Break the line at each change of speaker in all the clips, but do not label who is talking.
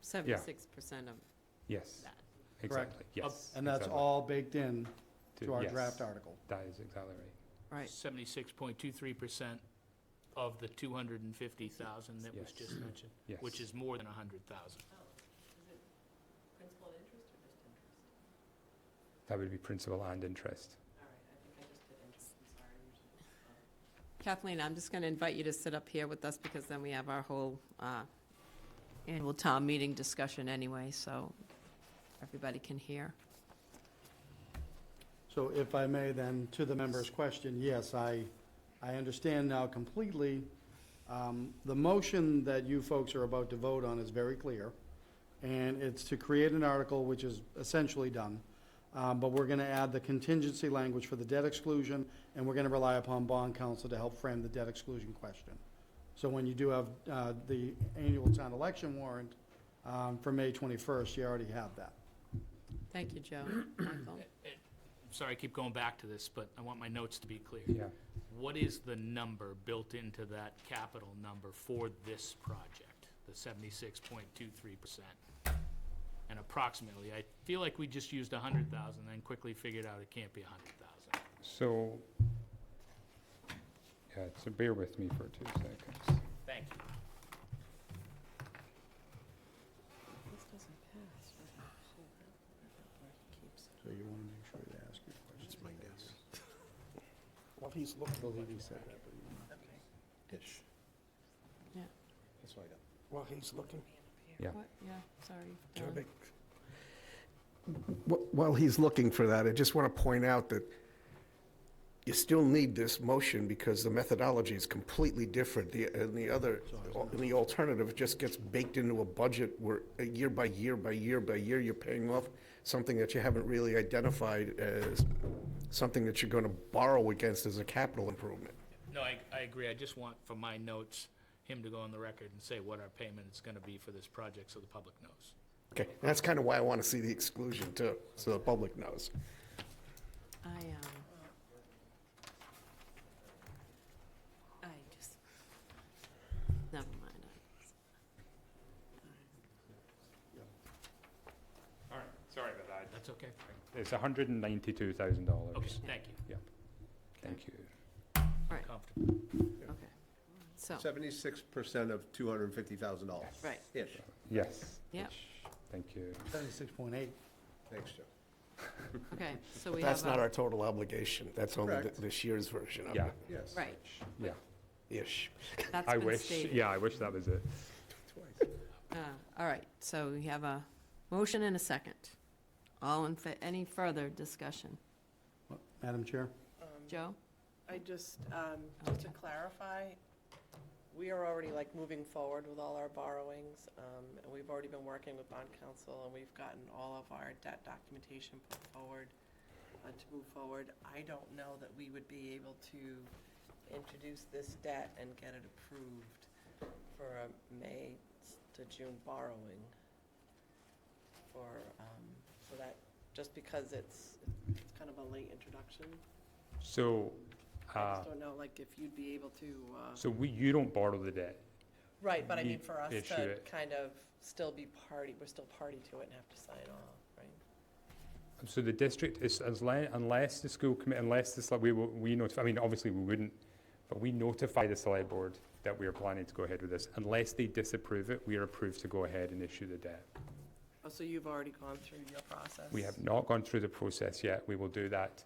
Seventy-six percent of
Yes,
that.
exactly, yes.
And that's
exactly.
all baked in to our
yes,
draft article.
That is exactly right.
Right.
Seventy-six point two-three percent of the two hundred and fifty thousand that was
Yes.
just mentioned,
Yes.
which is more than a hundred thousand.
Oh, Principal and interest or just interest?
That would be principal and interest.
All right, I think I just did interest, I'm sorry. Kathleen, I'm just going to invite you to sit up here with us because then we have our whole uh, annual town meeting discussion anyway, so everybody can hear.
So if I may then, to the member's question, yes, I, I understand now completely. Um, The motion that you folks are about to vote on is very clear, and it's to create an article, which is essentially done. Um, But we're going to add the contingency language for the debt exclusion, and we're going to rely upon bond counsel to help frame the debt exclusion question. So when you do have uh, the annual town election warrant um, for May 21st, you already have that.
Thank you, Joe. Michael?
Eh, Sorry, I keep going back to this, but I want my notes to be clear.
Yeah,
What is the number built into that capital number for this project, the seventy-six point two-three percent? And approximately, I feel like we just used a hundred thousand, then quickly figured out it can't be a hundred thousand.
so, yeah, so bear with me for two seconds.
Thank you.
So you want to make sure you ask your question.
That's my guess.
Well, he's looking,
Believe he said that, but he- ish.
Yeah.
That's what I got.
well, he's looking.
Yeah.
What? Yeah, sorry. Don.
Terrific.
Wh- While he's looking for that, I just want to point out that you still need this motion because the methodology is completely different. The, and the other, and the alternative just gets baked into a budget where uh, year by year by year by year, you're paying off something that you haven't really identified as something that you're going to borrow against as a capital improvement.
No, I, I agree. I just want for my notes, him to go on the record and say what our payment is gonna be for this project so the public knows.
Okay, and that's kind of why I want to see the exclusion too, so the public knows.
I, um, I just, never mind.
All right, sorry about that.
That's okay.
It's hundred and ninety-two thousand dollars.
Okay, thank you.
Yep, thank you.
Comfortable.
Okay, so,
Seventy-six percent of two hundred and fifty thousand dollars.
right,
Ish,
Yes.
Yep.
which- Thank you.
Seventy-six point eight.
thanks, Joe.
okay, so we have.
That's not
a-
our total obligation, that's only th-
Correct.
this year's version of
Yeah,
it,
Yes.
Right,
yeah.
ish.
that's
I
been
wish,
stated.
yeah, I wish that was it.
Uh, All right, so we have a motion and a second. All in, fa- any further discussion?
Madam Chair?
Joe?
I just, um, just to
Okay.
clarify, we are already like moving forward with all our borrowings. um, And we've already been working with bond counsel and we've gotten all of our debt documentation put forward uh, to move forward. I don't know that we would be able to introduce this debt and get it approved for a May to June borrowing. For, um, so that, just because it's, it's kind of a late introduction.
So,
I
uh,
just don't know, like, if you'd be able to, uh,
so we, you don't borrow the debt.
right, but I
we
mean, for us
issue
to
it.
kind of still be party, we're still party to it and have to sign off, right?
So the district is, as li- unless the school committee, unless the, select- we, will- we notify, I mean, obviously we wouldn't, but we notify the select board that we are planning to go ahead with this. Unless they disapprove it, we are approved to go ahead and issue the debt.
Oh, so you've already gone through your process?
We have not gone through the process yet. We will do that,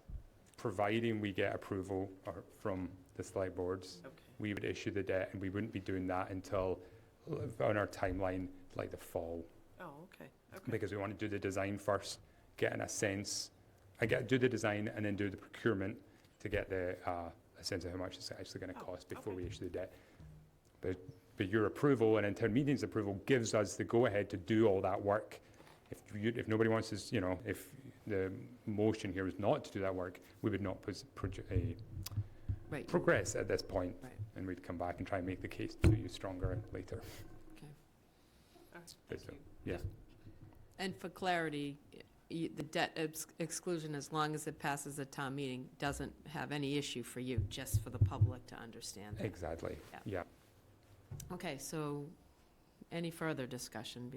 providing we get approval or- from the select boards.
Okay,
We would issue the debt and we wouldn't be doing that until, l- on our timeline, like the fall.
oh, okay, okay,
because we want to do the design first, get in a sense, I get, do the design and then do the procurement to get the, uh, a sense of how much it's actually gonna
Oh,
cost before
okay.
we issue the debt. But, but your approval and intern meeting's approval gives us the go-ahead to do all that work. If you, if nobody wants us, you know, if the motion here is not to do that work, we would not pos- produ- eh,
Right,
progress at this point,
Right.
And we'd come back and try and make the case to you stronger later.
all right,
But
thank
so-
you.
Yeah,
and for clarity, y- the debt ex- exclusion, as long as it passes a town meeting, doesn't have any issue for you, just for the public to understand. that.
exactly,
Yeah.
yeah.
Okay, so any further discussion